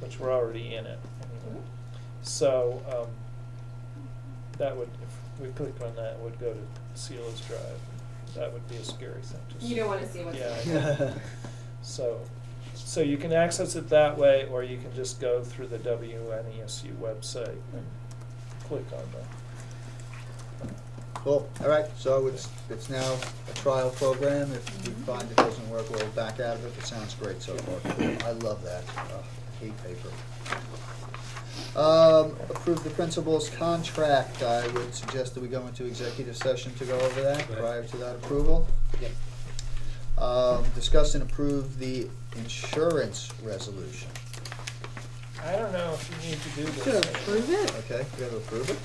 which we're already in it anyway. Mhm. So, um, that would, if we click on that, it would go to Celia's Drive. That would be a scary thing to see. You don't wanna see what's Yeah, in I know. there. So, so you can access it that way, or you can just go through the WNESU website and click on the. Cool, all right, so it's, it's now a trial program, if we Mm-hmm. find it doesn't work, we'll back out of it, it sounds great so far. I love that, Ugh, hate paper. Um, approve the principal's contract, I would suggest that we go into executive session to go over that, Right. prior to that approval. Yep. Um, discuss and approve the insurance resolution, I don't know if you need to do this. To approve it? okay, we gotta approve it?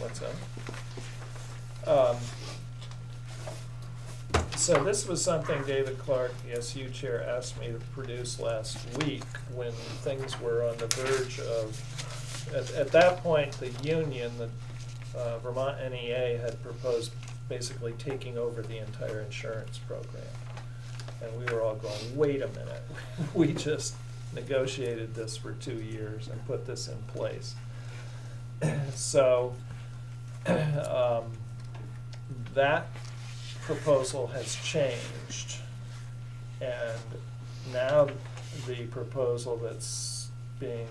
What's up? Um, so this was something David Clark, the SU chair, asked me to produce last week when things were on the verge of, at, at that point, the union, the uh, Vermont NEA had proposed basically taking over the entire insurance program. And we were all going, wait a minute, we just negotiated this for two years and put this in place. So, um, that proposal has changed. And now the proposal that's being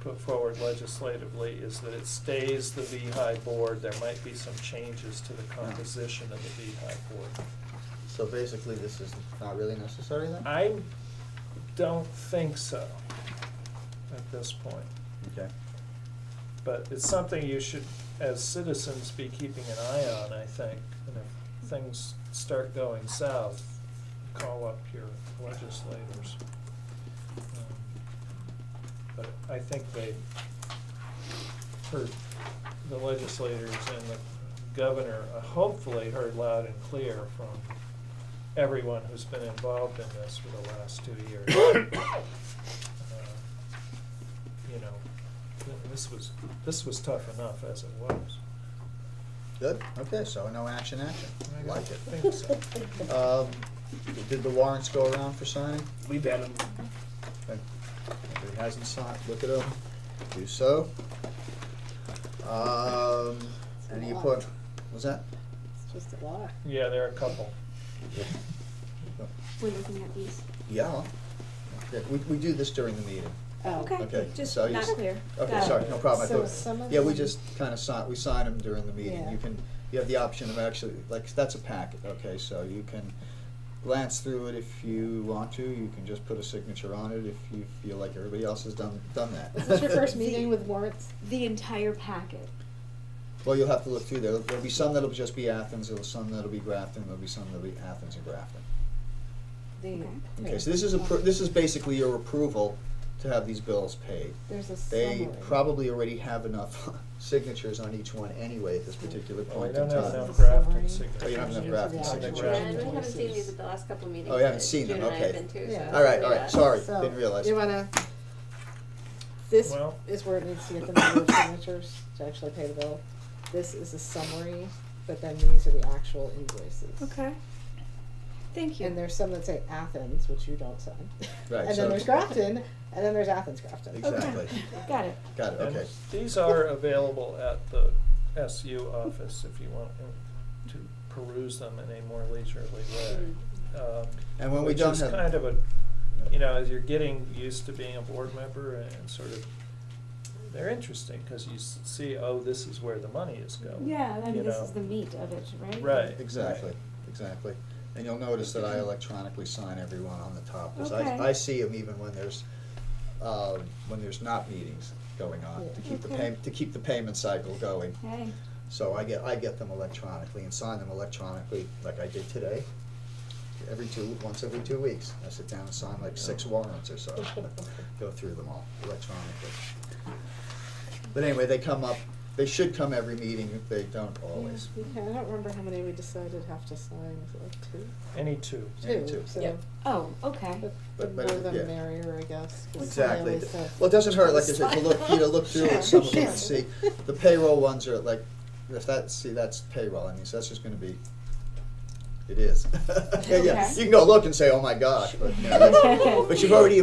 put forward legislatively is that it stays the VHI board. There might be some changes to the composition of the VHI board. So basically, this is not really necessary then? I don't think so at this point. Okay. But it's something you should, as citizens, be keeping an eye on, I think. And if things start going south, call up your legislators. Um, But I think they heard, the legislators and the governor uh, hopefully heard loud and clear from everyone who's been involved in this for the last two years. Uh, you know, th- this was, this was tough enough as it was. Good, okay, so no action, action, I like don't think so. it. Um, did the warrants go around for signing? We've had them. Okay. If it hasn't signed, look it up, do so. Um, any report, was that? It's just a lot. Yeah, there are a couple. We're looking at these. Yeah, Okay, we, we do this during the meeting, Oh. Okay. okay, Just so you not s- clear. okay, Got it. sorry, no problem, I So thought, some of yeah, we them- just kinda sign, we sign them during the meeting, Yeah. you can, you have the option of actually, like, that's a packet, okay, so you can glance through it if you want to, you can just put a signature on it if you feel like everybody else has done, done that. Is this your first meeting with warrants? The entire packet. Well, you'll have to look through there. There'll be some that'll just be Athens, there'll be some that'll be Grafton, there'll be some that'll be Athens and Grafton. The- Okay, so this is, appro- this is basically your approval to have these bills paid. There's a They summary. probably already have enough signatures on each one anyway at this particular Well, I point in don't have time. enough Grafton Summary. signatures. Oh, you don't have enough Grafton On the signatures. Yeah, Grafton. and we haven't seen Places. these at the last couple of meetings. Oh, you haven't but seen them, June and I have okay. been too, Yeah. so- All right, all Yeah. right, sorry, So, didn't realize. You wanna, this Well- is where it needs to get the number of signatures to actually pay the bill. This is a summary, but then these are the actual invoices. Okay. Thank you. And there's some that say Athens, which you don't sign. Right, And so- then there's Grafton, and then there's Athens Grafton. okay. Exactly. Got it. Got it, And okay. These are available at the SU office if you want to peruse them in a more leisurely Mm-hmm. way. Um, And when we don't Which have. is kind of a, you know, as you're getting used to being a board member and sort of, they're interesting because you s- see, oh, this is where the money is going. Yeah, I you mean, this know. is the meat of it, right? Right. Exactly, exactly. And you'll notice that I Mm-hmm. electronically sign everyone on the top, because I, Okay. I see them even when there's, uh, when there's not meetings going on, to keep the Okay. pay, to keep the payment cycle going. Hey. So I get, I get them electronically and sign them electronically, like I did today, every two, once every two weeks. I sit down and sign like six warrants or so, go through them all electronically. But anyway, they come up, they should come every meeting, if they don't always. Yeah, we can- I don't remember how many we decided have to sign, is it like two? Any two. Maybe two. So, Yep. Oh, okay. the the But- but more it- the yeah. merrier, I guess. 'cause I Exactly. always said- Well, it doesn't hurt, like I said, to look, you know, look through it, some of them, Sure. and see, the payroll ones are like, if that, see, that's payroll, I mean, so that's just gonna be, it is. Yeah, yeah, Okay. you can go look and say, oh my gosh, but, you know, that's- but you've already